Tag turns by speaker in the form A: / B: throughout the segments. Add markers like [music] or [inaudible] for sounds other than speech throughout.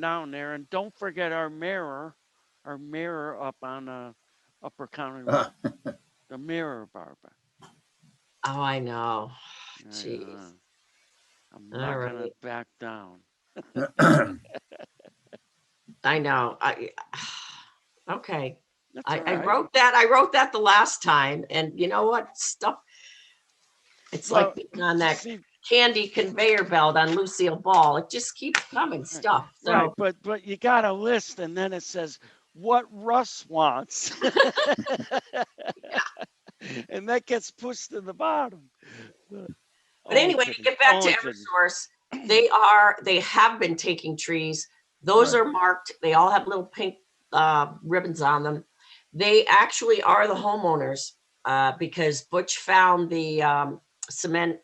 A: down there. And don't forget our mirror, our mirror up on uh, Upper County Road,
B: Uh,
A: the mirror, Barbara.
C: Oh, I know.
A: Yeah,
C: Jeez.
A: yeah. I'm not gonna
C: Alright.
A: back down.
B: [clears throat]
C: I know. I, [sighs] okay.
A: That's
C: I, I
A: alright.
C: wrote that, I wrote that the last time and you know what? Stuff. It's
A: Well,
C: like being on that
A: See,
C: candy conveyor belt on Lucille Ball. It just keeps coming stuff.
A: Right,
C: So,
A: but, but you got a list and then it says what Russ wants. [laughs] And that gets pushed to the bottom. But oh,
C: but anyway, to get back to Eversource, they are, they have been taking trees. Those
B: Right.
C: are marked. They all have little pink uh, ribbons on them. They actually are the homeowners uh, because Butch found the um, cement,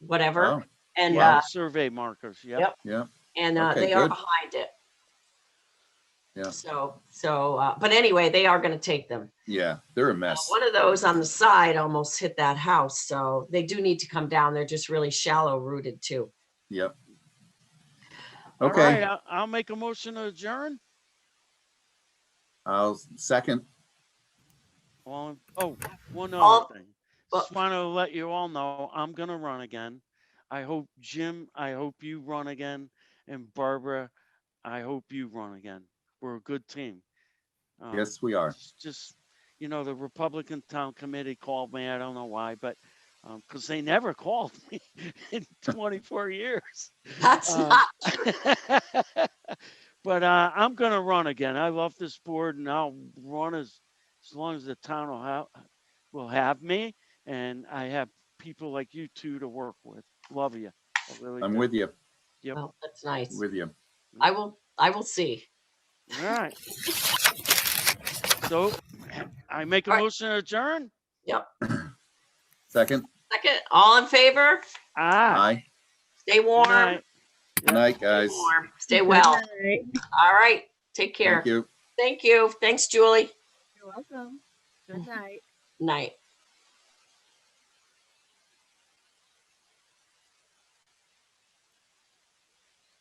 C: whatever,
B: wow,
C: and
B: Oh, wow.
C: uh,
A: Survey markers, yep.
C: Yep.
B: Yeah,
C: and uh,
B: Okay,
C: they are
B: good.
C: behind it.
B: Yeah.
C: So, so, uh, but anyway, they are going to take them.
B: yeah, they're a
C: Uh,
B: mess.
C: One of those on the side almost hit that house, so they do need to come down. They're just really shallow rooted too. [laughs]
B: Yep.
A: All right,
B: Okay,
A: I'll, I'll make a motion to adjourn.
B: I'll second.
A: All, in- oh, one
C: All-
A: other thing.
C: well-
A: Just want to let you all know, I'm gonna run again. I hope Jim, I hope you run again, and Barbara, I hope you run again. We're a good team. Um,
B: Yes, we are.
A: it's Just, you know, the Republican Town Committee called me, I don't know why, but, um, cause they never [laughs] called me in twenty-four years.
C: That's
B: Oh. [laughs]
A: Um, [laughs]
C: not
A: But uh, I'm gonna run again. I love this board and I'll run as, as long as the town will have, will have me. And I have people like you two to work with. Love you. I really
B: I'm
A: do.
B: with you,
A: Yep.
C: well, that's nice.
B: with you.
C: I will. I will see.
A: All right. So [clears throat] I make a
C: All right.
A: motion to adjourn?
B: Second,
C: Second, all in favor?
A: Ah.
B: aye.
C: Stay
A: good
C: warm.
A: night.
B: Good night,
C: Stay
B: guys.
C: warm. Stay well. All right. Take care.
B: Thank you.
C: Thank you. Thanks, Julie.
D: You're welcome. Good night.
C: Night.